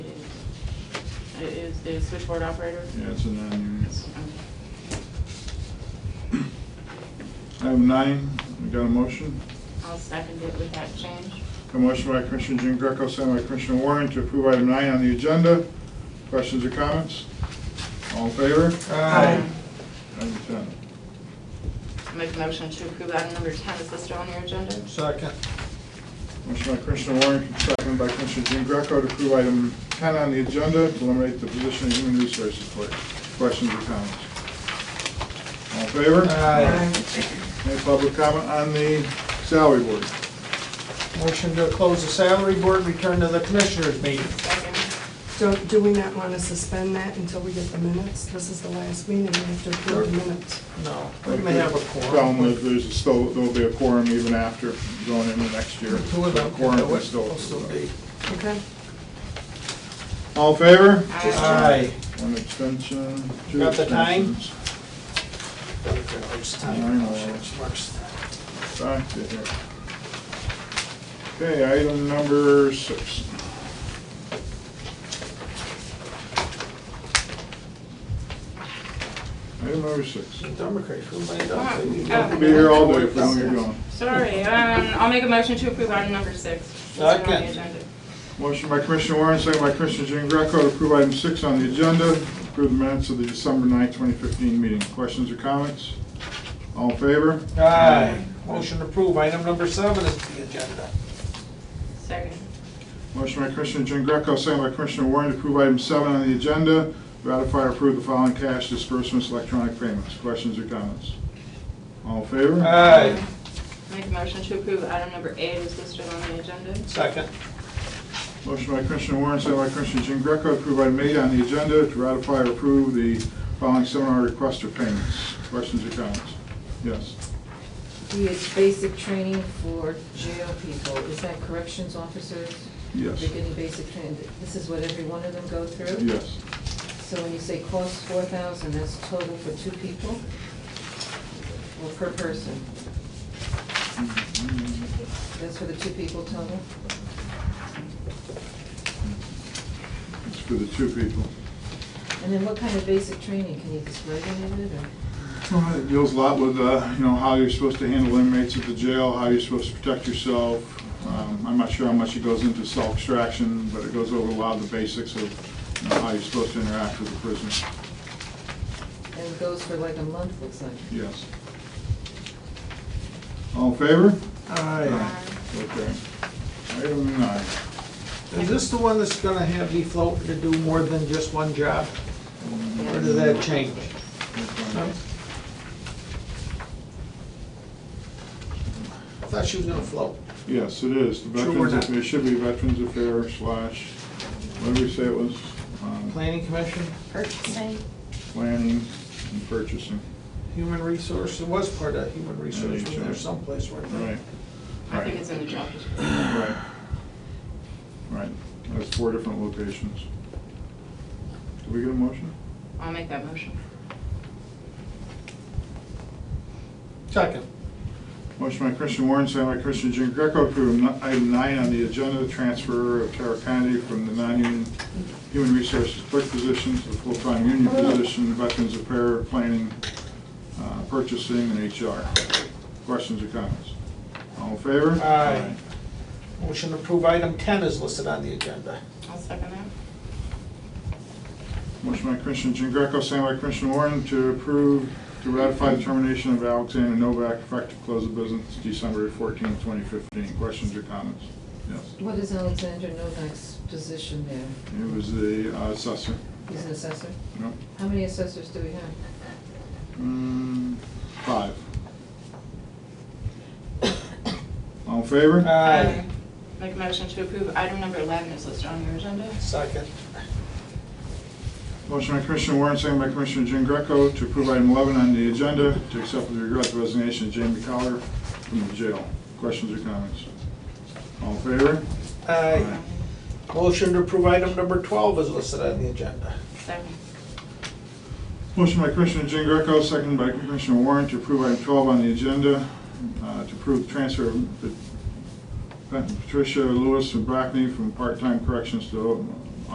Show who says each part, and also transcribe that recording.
Speaker 1: It is the switchboard operator?
Speaker 2: Yeah, it's a non-union.
Speaker 1: Okay.
Speaker 2: Item nine, we got a motion?
Speaker 1: I'll second it with that change.
Speaker 2: A motion by Commissioner Jean Greco, second by Commissioner Warren to approve item nine on the agenda. Questions or comments? All in favor?
Speaker 3: Aye.
Speaker 2: Item ten.
Speaker 1: I Make a motion to approve item number 10 is listed on your agenda.
Speaker 3: Second.
Speaker 2: Motion by Commissioner Warren, second by Commissioner Jean Greco to approve item ten on the agenda to eliminate the position of human resources clerk. Questions or comments? All in favor? Any public comment on the salary board?
Speaker 3: Motion to close the salary board, return to the commissioners meeting.
Speaker 1: Second.
Speaker 4: So do we not want to suspend that until we get the minutes? This is the last meeting, we have to approve the minutes.
Speaker 3: No, we may have a quorum.
Speaker 2: Problem is, there's still, there'll be a quorum even after going into next year.
Speaker 3: Two of them
Speaker 2: Quorum
Speaker 3: can
Speaker 2: is
Speaker 3: do it, will still be.
Speaker 4: Okay?
Speaker 2: All in favor?
Speaker 3: Aye.
Speaker 2: One abstention. two
Speaker 3: Got the time?
Speaker 2: abstentions.
Speaker 3: It's
Speaker 2: I
Speaker 3: time.
Speaker 2: know.
Speaker 3: It's worse.
Speaker 2: Back to here. Okay, item number six. Item number six.
Speaker 3: Dumber crazy, who made up?
Speaker 1: Oh,
Speaker 3: They
Speaker 1: oh.
Speaker 2: We'll be here all day if we don't get going.
Speaker 1: Sorry, um, I'll make a motion to approve item number 6. listed on
Speaker 3: Second.
Speaker 1: the agenda.
Speaker 2: Motion by Commissioner Warren, second by Commissioner Jean Greco to approve item six on the agenda, approve the minutes of the December 9, 2015 meeting. Questions or comments? All in favor?
Speaker 3: Aye. Motion to approve, item number seven is the agenda.
Speaker 1: Second.
Speaker 2: Motion by Commissioner Jean Greco, second by Commissioner Warren to approve item seven on the agenda, ratify or approve the following cash disbursements, electronic payments. Questions or comments? All in favor?
Speaker 3: Aye.
Speaker 1: Make a motion to approve item number 8 is listed on the agenda.
Speaker 3: Second.
Speaker 2: Motion by Commissioner Warren, second by Commissioner Jean Greco to approve item eight on the agenda, to ratify or approve the following seminar requests for payments. Questions or comments? Yes.
Speaker 5: It's basic training for jail people, is that corrections officers?
Speaker 2: Yes.
Speaker 5: They're getting basic training, this is what every one of them go through?
Speaker 2: Yes.
Speaker 5: So when you say cost four thousand, that's total for two people? Or per person? That's for the two people total?
Speaker 2: It's for the two people.
Speaker 5: And then what kind of basic training, can you describe any of it, or?
Speaker 2: Well, It deals a lot with, uh, you know, how you're supposed to handle inmates at the jail, how you're supposed to protect yourself. Um, I'm not sure how much it goes into self-extraction, but it goes over a lot of the basics of, you know, how you're supposed to interact with the prisoner.
Speaker 5: And it goes for like a month, looks like?
Speaker 2: Yes. All in favor?
Speaker 3: Aye.
Speaker 2: Okay. Item nine.
Speaker 3: Is this the one that's gonna have me floating to do more than just one job? Or did that change? No? I thought she was gonna float.
Speaker 2: Yes, it is. The
Speaker 3: Sure we're
Speaker 2: Veterans,
Speaker 3: not.
Speaker 2: it should be Veterans Affairs slash, what did we say it was? Um,
Speaker 3: Planning Commission,
Speaker 1: Purchasing.
Speaker 2: Planning and purchasing.
Speaker 3: Human Resource, it was part of Human Resource, was there
Speaker 2: Resource.
Speaker 3: someplace where
Speaker 2: Right,
Speaker 3: they?
Speaker 1: I think it's in the job description.
Speaker 2: right. Right, that's four different locations. Did we get a motion?
Speaker 1: I'll make that motion.
Speaker 3: Second.
Speaker 2: Motion by Christian Warren, second by Christian Jean Greco, approve n- item nine on the agenda, transfer of Tara Kennedy from the non-union human resources clerk position to the full-time union position, Veterans Affairs, Planning, uh, Purchasing, and HR. Questions or comments? All in favor?
Speaker 3: Aye. Motion to approve item ten is listed on the agenda.
Speaker 1: I'll second that.
Speaker 2: Motion by Commissioner Jean Greco, second by Commissioner Warren to approve, to ratify the termination of Alexander Novak effective close of business December 14, 2015. Questions or comments? Yes.
Speaker 5: What is Alexander Novak's position there?
Speaker 2: It was the uh, assessor.
Speaker 5: He's an assessor?
Speaker 2: No?
Speaker 5: How many assessors do we have?
Speaker 2: Mm, Five. All in favor?
Speaker 1: Uh.
Speaker 3: Aye.
Speaker 1: Make a motion to approve item number 11 is listed on your agenda.
Speaker 3: Second.
Speaker 2: Motion by Commissioner Warren, second by Commissioner Jean Greco to approve item 11 on the agenda to accept with regret the resignation of Jamie Collier from the jail. Questions or comments? All in favor?
Speaker 3: Aye. Motion to approve item number twelve is listed on the agenda.
Speaker 1: Second.
Speaker 2: Motion by Commissioner Jean Greco, second by Commissioner Warren to approve item 12 on the agenda, uh, to approve the transfer of Pat- Patricia Lewis and Brackney from part-time corrections to